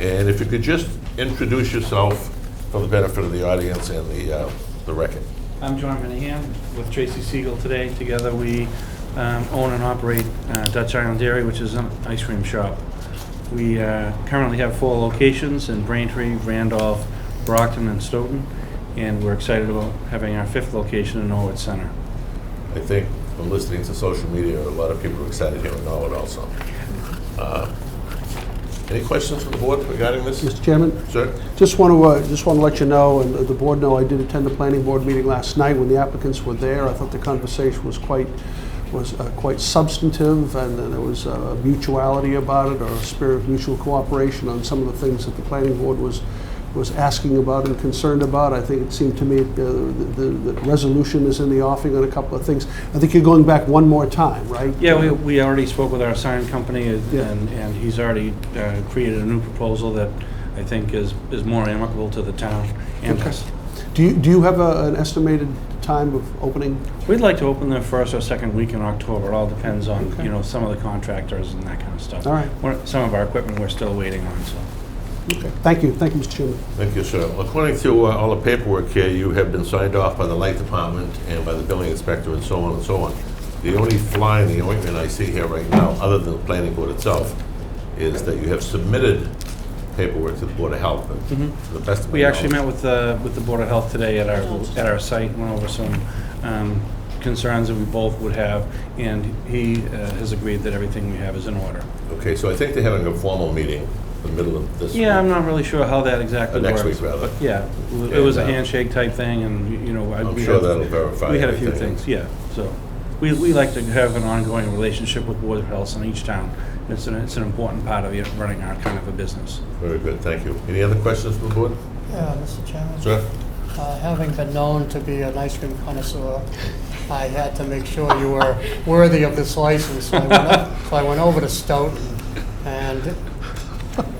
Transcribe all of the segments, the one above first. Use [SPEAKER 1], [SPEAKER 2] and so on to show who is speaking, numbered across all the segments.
[SPEAKER 1] And if you could just introduce yourself for the benefit of the audience and the, uh, the record.
[SPEAKER 2] I'm John Minahan with Tracy Siegel today. Together, we um, own and operate uh, Dutch Island Dairy, which is an ice cream shop. We uh, currently have four locations in Braintree, Randolph, Brockton, and Stoughton, and we're excited about having our fifth location in Norwood Center.
[SPEAKER 1] I think from listening to social media, a lot of people are excited here in Norwood also. Uh, Any questions from the board regarding this?
[SPEAKER 3] Mr. Chairman,
[SPEAKER 1] Sir?
[SPEAKER 3] just want to, just want to let you know, and the board know, I did attend the planning board meeting last night when the applicants were there. I thought the conversation was quite, was uh, quite substantive, and uh, there was a mutuality about it, or a spirit of mutual cooperation on some of the things that the planning board was, was asking about and concerned about. I think it seemed to me uh, the, the the resolution is in the offing on a couple of things. I think you're going back one more time, right?
[SPEAKER 2] Yeah, we, we already spoke with our sign company, uh,
[SPEAKER 3] Yeah.
[SPEAKER 2] and, and he's already uh, created a new proposal that I think is, is more amicable to the town and us.
[SPEAKER 3] Do you, do you have a- an estimated time of opening?
[SPEAKER 2] We'd like to open the first or second week in October. It all depends on, you know, some of the contractors and that kind of stuff.
[SPEAKER 3] All right.
[SPEAKER 2] We're- Some of our equipment we're still waiting on, so.
[SPEAKER 3] Thank you, thank you, Mr. Chairman.
[SPEAKER 1] Thank you, sir. According to uh, all the paperwork here, you have been signed off by the light department and by the building inspector and so on and so on. The only fly in the ointment I see here right now, other than the planning board itself, is that you have submitted paperwork to the Board of Health. and to the best of my
[SPEAKER 2] Mm-hmm. We actually
[SPEAKER 1] knowledge-
[SPEAKER 2] met with the, with the Board of Health today at our, at our site, and went over some um, concerns that we both would have, and he uh, has agreed that everything we have is in order.
[SPEAKER 1] Okay, so I think they're having a formal meeting in the middle of this.
[SPEAKER 2] Yeah, I'm
[SPEAKER 1] week,
[SPEAKER 2] not really sure how that exactly
[SPEAKER 1] or
[SPEAKER 2] works.
[SPEAKER 1] Next week, rather.
[SPEAKER 2] Yeah, it was a
[SPEAKER 1] And, uh,
[SPEAKER 2] handshake type thing, and, you know. I-
[SPEAKER 1] I'm
[SPEAKER 2] we
[SPEAKER 1] sure
[SPEAKER 2] had-
[SPEAKER 1] that'll verify
[SPEAKER 2] We had a few
[SPEAKER 1] everything.
[SPEAKER 2] things, yeah, so, we, we like to have an ongoing relationship with Board of Health in each town. It's an, it's an important part of you know, running our kind of a business.
[SPEAKER 1] Very good, thank you. Any other questions from the board?
[SPEAKER 4] Yeah, Mr. Chairman.
[SPEAKER 1] Sir?
[SPEAKER 4] Uh, Having been known to be an ice cream connoisseur, I had to make sure you were worthy of this license. So I went up- so I went over to Stoughton, and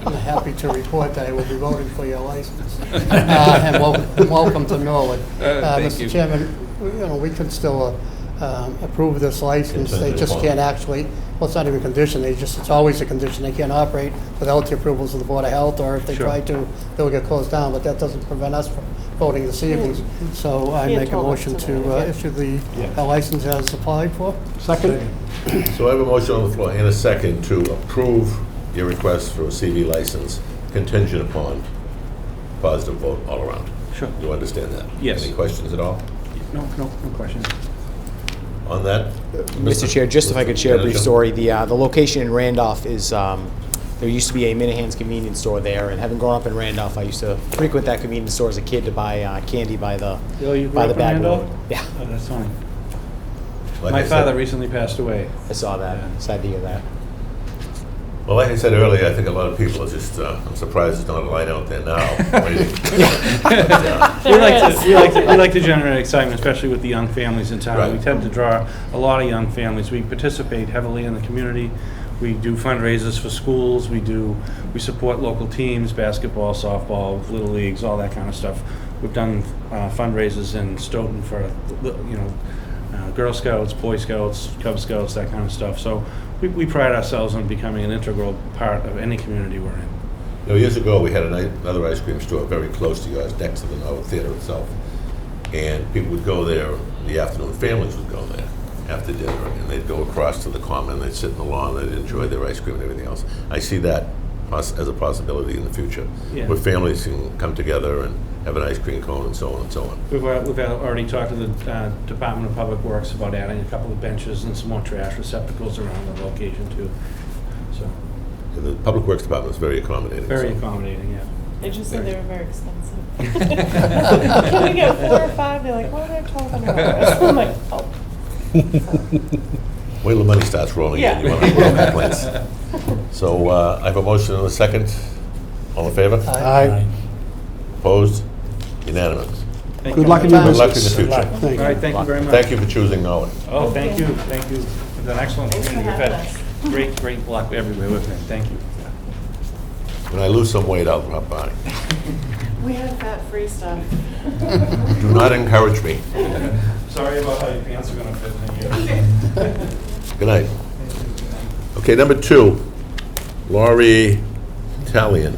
[SPEAKER 4] I'm happy to report that I will be voting for your license. Uh, And wel- and welcome to Norwood. Uh, Mr. Chairman, we- you know, we can still uh, um, approve this license. They
[SPEAKER 1] Contingent
[SPEAKER 4] just
[SPEAKER 1] upon.
[SPEAKER 4] can't actually, well, it's not even a condition, they just, it's always a condition. They can't operate without the approvals of the Board of Health, or if they
[SPEAKER 2] Sure.
[SPEAKER 4] try to, they'll get closed down, but that doesn't prevent us from voting this evening. So I
[SPEAKER 5] He had
[SPEAKER 4] make a
[SPEAKER 5] told us
[SPEAKER 4] motion
[SPEAKER 5] today,
[SPEAKER 4] to uh,
[SPEAKER 5] yeah.
[SPEAKER 4] issue the
[SPEAKER 2] Yeah.
[SPEAKER 4] the license as applied for.
[SPEAKER 3] Second?
[SPEAKER 1] So I have a motion on the floor in a second to approve your request for a CV license contingent upon positive vote all around.
[SPEAKER 2] Sure.
[SPEAKER 1] You understand that?
[SPEAKER 2] Yes.
[SPEAKER 1] Any questions at all
[SPEAKER 2] No, no, no questions.
[SPEAKER 1] on that?
[SPEAKER 6] Mr. Chair, just if I could share a brief
[SPEAKER 1] Manager?
[SPEAKER 6] story, the, uh, the location in Randolph is, um, there used to be a Minahan's convenience store there, and having grown up in Randolph, I used to frequent that convenience store as a kid to buy, uh, candy by the,
[SPEAKER 2] Yo, you grew
[SPEAKER 6] by
[SPEAKER 2] up
[SPEAKER 6] the
[SPEAKER 2] in
[SPEAKER 6] back
[SPEAKER 2] Randolph?
[SPEAKER 6] road. Yeah,
[SPEAKER 2] Oh, that's funny.
[SPEAKER 1] Like I
[SPEAKER 2] My
[SPEAKER 1] said-
[SPEAKER 2] father recently passed away.
[SPEAKER 6] I saw
[SPEAKER 2] Yeah.
[SPEAKER 6] that, sad to hear that.
[SPEAKER 1] Well, like I said earlier, I think a lot of people are just, uh, I'm surprised there's not a light out there now. waiting. But, uh,
[SPEAKER 2] We like to, we like to, we like to generate excitement, especially with the young families in town. We
[SPEAKER 1] Right.
[SPEAKER 2] tend to draw a lot of young families. We participate heavily in the community. We do fundraisers for schools. We do, we support local teams, basketball, softball, little leagues, all that kind of stuff. We've done uh, fundraisers in Stoughton for, you know, uh, Girl Scouts, Boy Scouts, Cub Scouts, that kind of stuff. So we, we pride ourselves on becoming an integral part of any community we're in.
[SPEAKER 1] You know, years ago, we had an i- another ice cream store very close to yours, next to the Norwood Theater itself. And people would go there, in the afternoon families would go there after dinner, and they'd go across to the common, they'd sit in the lawn, they'd enjoy their ice cream and everything else. I see that poss- as a possibility in the future,
[SPEAKER 2] Yeah.
[SPEAKER 1] where families can come together and have an ice cream cone and so on and so on.
[SPEAKER 2] We've, al- we've al- already talked to the uh, Department of Public Works about adding a couple of benches and some more trash receptacles around the location too. So,
[SPEAKER 1] And the Public Works Department is very accommodating.
[SPEAKER 2] very
[SPEAKER 1] so-
[SPEAKER 2] accommodating, yeah.
[SPEAKER 5] They just said they were very expensive.
[SPEAKER 2] Yeah.
[SPEAKER 5] Can we get four or five? They're like, what are they talking about? I'm like, oh.
[SPEAKER 1] Wait till the money starts rolling in,
[SPEAKER 5] Yeah.
[SPEAKER 1] you want to roll that place. So uh, I have a motion and a second. All in favor?
[SPEAKER 3] Aye.
[SPEAKER 1] Opposed? Unanimous.
[SPEAKER 2] Thank
[SPEAKER 3] Good
[SPEAKER 2] you.
[SPEAKER 3] luck in your
[SPEAKER 1] Good
[SPEAKER 3] business.
[SPEAKER 1] luck in the future.
[SPEAKER 3] Thank
[SPEAKER 2] All
[SPEAKER 3] you.
[SPEAKER 2] right, thank you very much.
[SPEAKER 1] Thank you for choosing Norwood.
[SPEAKER 2] Oh, thank you, thank you. It's an excellent
[SPEAKER 5] Thanks for
[SPEAKER 2] community. We've
[SPEAKER 5] having
[SPEAKER 2] had great, great luck everywhere with it. Thank you.
[SPEAKER 1] When I lose some weight, I'll drop by.
[SPEAKER 5] We have fat-free stuff.
[SPEAKER 1] Do not encourage me.
[SPEAKER 2] Sorry about how your pants are gonna fit in here.
[SPEAKER 1] Good night. Okay, number two, Laurie Talion.